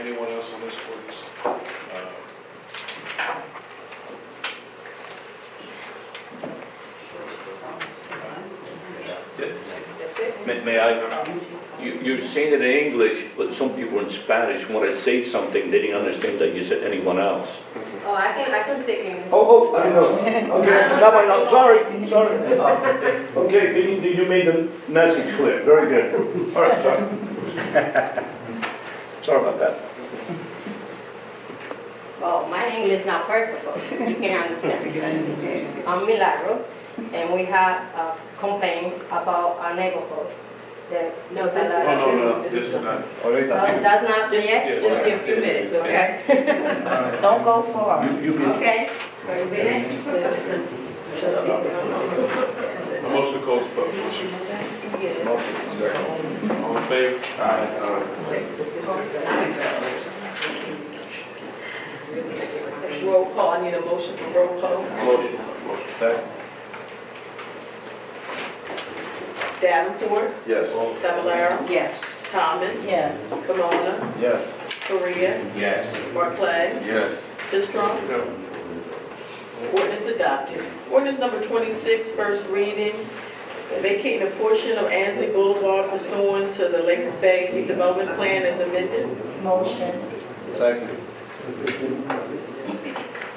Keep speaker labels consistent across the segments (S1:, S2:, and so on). S1: Anyone else on this, please? Uh,
S2: That's it?
S3: May, may I, you, you're saying it in English, but some people in Spanish, when I say something, they didn't understand that you said anyone else.
S2: Oh, I can, I can speak English.
S3: Oh, oh, I know. Okay, now I know, sorry, sorry. Okay, you, you made the message clear, very good. All right, sorry. Sorry about that.
S2: Well, my English is not perfect, but you can understand. I'm Milagro, and we have a complaint about our neighborhood. The-
S4: No, this is-
S1: Oh,
S2: Well,
S1: no, no, this is not.
S3: Ahorita.
S2: That's not yet?
S1: Yes.
S4: Just give a few minutes, okay?
S5: Don't go far.
S3: You, you can,
S2: Okay. Very good.
S1: A motion to close public portion. All in favor?
S4: Roll call, I need a motion for roll call.
S1: Motion. Second.
S4: Davenport,
S1: Yes.
S4: Fablelaro,
S2: Yes.
S4: Thomas,
S5: Yes.
S4: Camona,
S6: Yes.
S4: Korea,
S6: Yes.
S4: Barclay,
S6: Yes.
S4: Sistrum.
S1: No.
S4: Ordinance adopted. Ordinance number 26, first reading, vacating a portion of Ansley Boulevard pursuant to the Lakes Bay redevelopment plan as amended.
S5: Motion.
S6: Second.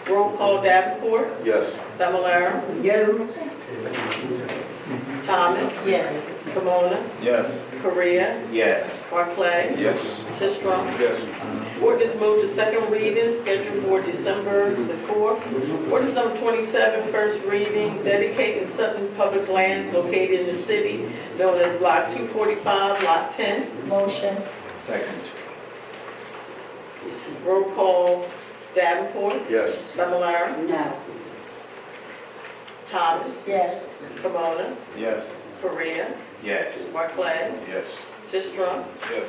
S4: Roll call Davenport,
S6: Yes.
S4: Fablelaro,
S5: You.
S4: Thomas,
S5: Yes.
S4: Camona,
S6: Yes.
S4: Korea,
S6: Yes.
S4: Barclay,
S1: Yes.
S4: Sistrum.
S1: Yes.
S4: Ordinance moved to second reading, scheduled for December the 4th. Ordinance number 27, first reading, dedicating certain public lands located in the city known as Block 245, Lot 10.
S5: Motion.
S6: Second.
S4: Roll call Davenport,
S6: Yes.
S4: Fablelaro,
S5: No.
S4: Thomas,
S5: Yes.
S4: Camona,
S6: Yes.
S4: Korea,
S6: Yes.
S4: Barclay,
S6: Yes.
S4: Sistrum.
S1: Yes.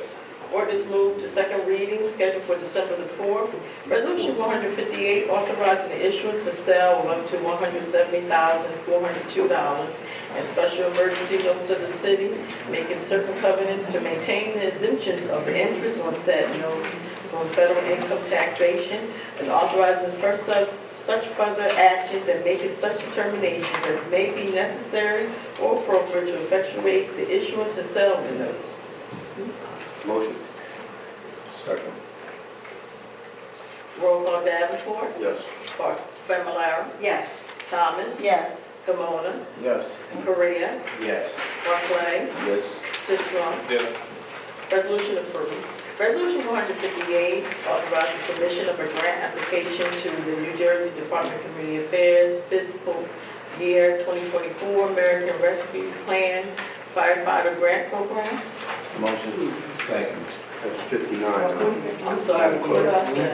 S4: Ordinance moved to second reading, scheduled for December the 4th. Resolution 158, authorizing the issuance and sale of up to $170,402 and special emergency notes of the city, making certain covenants to maintain the exemptions of interest on said notes from federal income taxation, and authorizing for such such further actions and making such determinations as may be necessary or appropriate to effectuate the issuance and sale of the notes.
S6: Motion. Second.
S4: Roll call Davenport,
S6: Yes.
S4: Clark, Familar,
S2: Yes.
S4: Thomas,
S5: Yes.
S4: Kimona,
S6: Yes.
S4: Korea,
S6: Yes.
S4: Barclay,
S6: Yes.
S4: Sisram.
S1: Yes.
S4: Resolution approved. Resolution 158, authorizing submission of a grant application to the New Jersey Department of Community Affairs Fiscal Year 2024 American Rescue Plan Firefighter Grant Program.
S6: Motion. Second. That's fifty-nine. huh?
S4: I'm sorry, what did I say?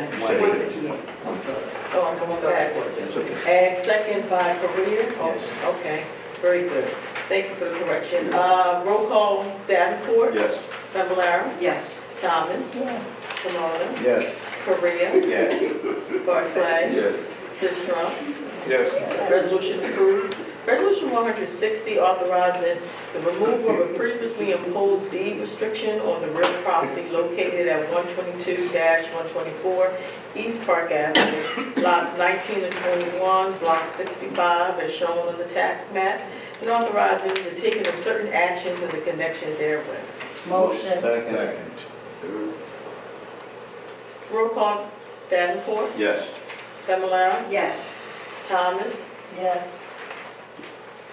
S4: Oh, I'm going backwards.
S6: That's okay.
S4: And second by Korea? Oh, Okay, very good. Thank you for the correction. Uh, Roll call Davenport,
S6: Yes.
S4: Fablelaro,
S2: Yes.
S4: Thomas,
S5: Yes.
S4: Camona,
S6: Yes.
S4: Korea,
S6: Yes.
S4: Barclay,
S6: Yes.
S4: Sistrum.
S1: Yes.
S4: Resolution approved. Resolution 160, authorizing the removal of a previously imposed deed restriction on the real property located at 122-124 East Park Avenue, lots 19 and 21, block 65, as shown on the tax map, and authorizing the taking of certain actions in the connection therewith.
S5: Motion.
S6: Second.
S4: Roll call, Davenport,
S6: Yes.
S4: Familar,
S2: Yes.
S4: Thomas,
S5: Yes.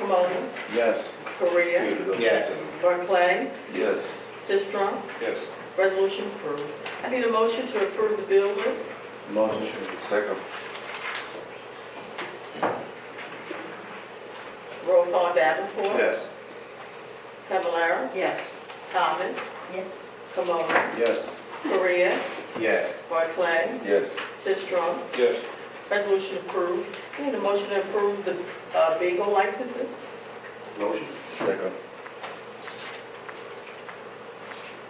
S4: Camona,
S6: Yes.
S4: Korea,
S6: Yes.
S4: Barclay,
S6: Yes.
S4: Sistrum,
S1: Yes.
S4: Resolution approved. I need a motion to approve the bill list.
S6: Motion. Second.
S4: Roll call Davenport,
S6: Yes.
S4: Fablelaro,
S2: Yes.
S4: Thomas,
S5: Yes.
S4: Camona,
S6: Yes.
S4: Korea,
S6: Yes.
S4: Barclay,
S6: Yes.
S4: Sistrum.
S1: Yes.
S4: Resolution approved. I need a motion to approve the uh, bingo licenses.
S6: Motion. Second.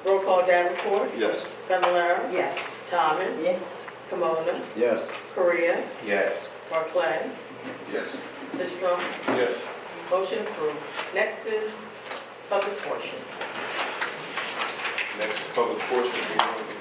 S4: Roll call Davenport,
S6: Yes.
S4: Fablelaro,
S2: Yes.
S4: Thomas,
S5: Yes.
S4: Camona,
S6: Yes.
S4: Korea,
S6: Yes.
S4: Barclay,
S6: Yes.
S4: Sistrum.
S1: Yes.
S4: Motion approved. Next is public portion.
S1: Next public portion, we want to